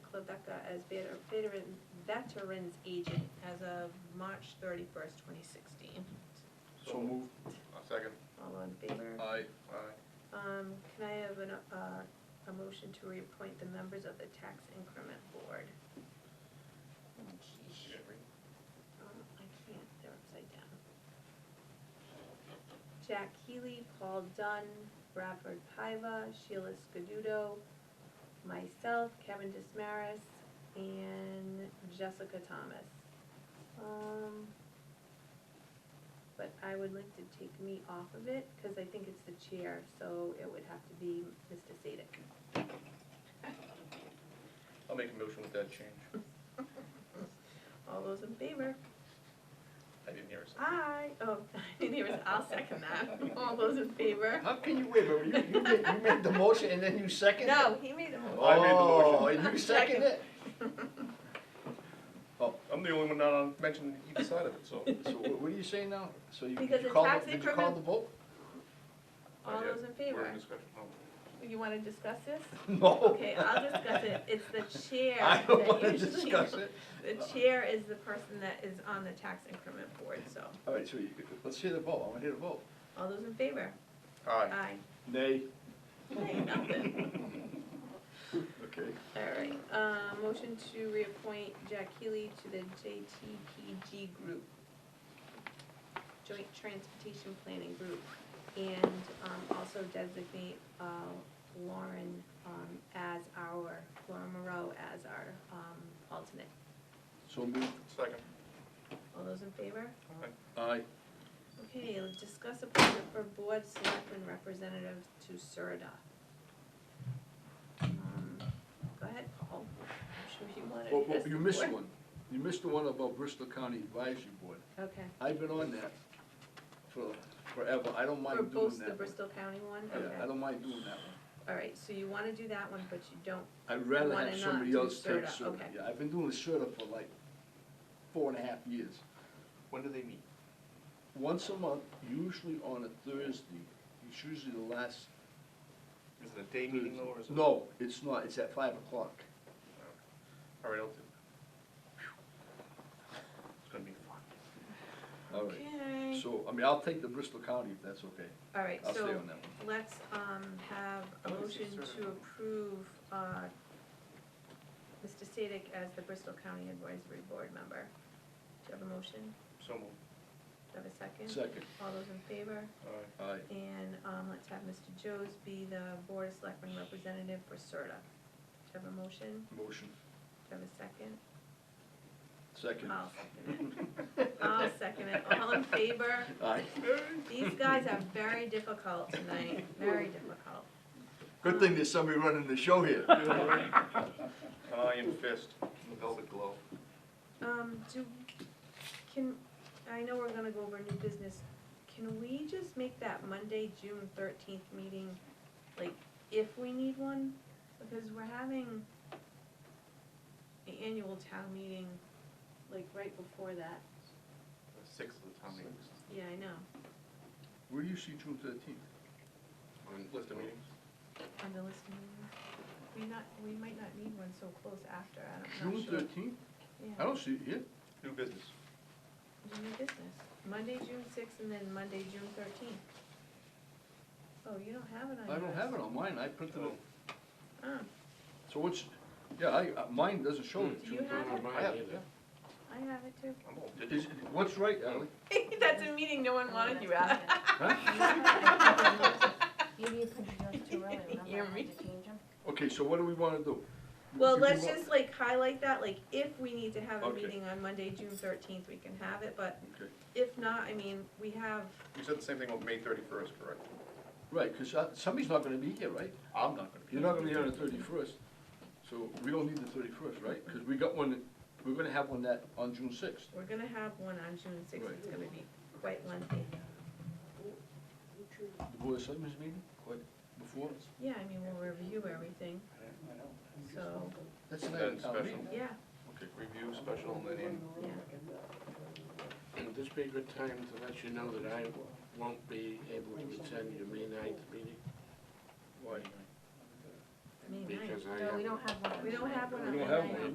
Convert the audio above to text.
as veter- veteran, veterans agent as of March thirty-first, twenty sixteen. So moved. A second. All in favor? Aye. Aye. Um, can I have an, uh, a motion to reappoint the members of the tax increment board? Um, I can't, they're upside down. Jack Healy, Paul Dunn, Bradford Paiva, Sheila Scaduto, myself, Kevin Dismaris, and Jessica Thomas. Um, but I would like to take me off of it, cause I think it's the chair, so it would have to be Mr. Sadik. I'll make a motion with that change. All those in favor? I didn't hear a second. Aye, oh, I didn't even, I'll second that. All those in favor? How can you wait, but you, you made, you made the motion and then you seconded it? No, he made a. Oh, I made the motion. Oh, and you seconded it? Oh, I'm the only one not on, mentioned either side of it, so. So wha- what are you saying now? So you, Because did you it's call, tax the- did you call increment- the vote? All Not yet. those in We're favor? in discussion. Oh. You wanna discuss this? No. Okay, I'll discuss it. It's the chair I don't that wanna usually. discuss it. The chair is the person that is on the tax increment board, so. All right, so you, let's hear the vote, I wanna hear the vote. All those in favor? Aye. Aye. Nay. Nay, nothing. Okay. All right, uh, motion to reappoint Jack Healy to the JTPG group, Joint Transportation Planning Group, and, um, also designate, uh, Lauren, um, as our, Lauren Moreau as our, um, alternate. So moved. Second. All those in favor? Aye. Aye. Okay, let's discuss appointment for board selectmen representatives to Serta. Um, Go ahead, Paul, I'm sure you wanted Well, to well, this you missed before. one. You missed the one about Bristol County Advisory Board. Okay, I've been on that for forever, I don't mind for doing that. both the one. Bristol County one, Yeah, I okay, don't mind doing that one. all right, so you wanna do that one, but you don't, I'd rather wanna have not somebody do else take Serta, Serta. okay. Yeah, I've been doing Serta for like four and a half years. When do they meet? Once a month, usually on a Thursday, it's usually the last. Is it a day meeting though, or is it? No, it's not, it's at five o'clock. All right, I'll do. It's gonna be fun. All right. okay, So, I mean, I'll take the Bristol County if that's okay. all right, I'll stay so on that one. let's, um, have I a wanna see motion Serta. to approve, uh, Mr. Sadik as the Bristol County Advisory Board member. Do you have a motion? So moved. Do you have a second? Second, All those in favor? Aye. aye. And um, let's have Mr. Joes be the Board of Selectmen representative for CERTA. Do you have a motion? Motion, Do you have a second? second. I'll second it. I'll second it. All in favor? Aye. These guys are very difficult tonight, very difficult. Good thing there's somebody running the show here. Iron fist, velvet glove. Um, do, can, I know we're gonna go over new business. Can we just make that Monday, June thirteenth meeting, like, if we need one? Because we're having the annual town meeting, like, right before that. Six of the town meetings. Yeah, I know, Where do you see June thirteenth? On the List of meetings. on the list of meetings. We not, we might not need one so close after, I don't, June not sure. thirteenth? I Yeah, don't see it here. New business. do new business. Monday, June sixth, and then Monday, June thirteenth. Oh, you don't have it on I don't yours. have it on mine. I printed it. Oh. So what's, yeah, I, uh, mine doesn't show it. Do you have it? I have it, I have it too. I'm all yeah. digital. Is- What's right, Ally? That's a meeting no one wanted you at. Maybe you put yours too early, You're remember, I had to change them? Okay, so what do we wanna do? Well, Do we let's want- just like highlight that, like if we need to have a Okay. meeting on Monday, June thirteenth, we can have it, but Okay. if not, I mean, we have, You said the same thing on May thirty-first, correct? Right, because somebody's not gonna be here, right? I'm not gonna be. You're not gonna be here on the thirty-first, so we don't need the thirty-first, right? Because we got one, we're gonna have one that, on June sixth. we're gonna have one on June sixth, Right. it's gonna be quite lengthy. The Board of Selectmen's meeting, quite before, Yeah, I mean, we'll review everything, so, that's the night of That's town special. meeting. yeah, Okay, review special and then in. yeah. Would this be a good time to let you know that I won't be able to attend your May ninth meeting? Why? May ninth. Because I No, have we don't have one. on We don't Monday. have one Oh, We on don't May have ninth. one.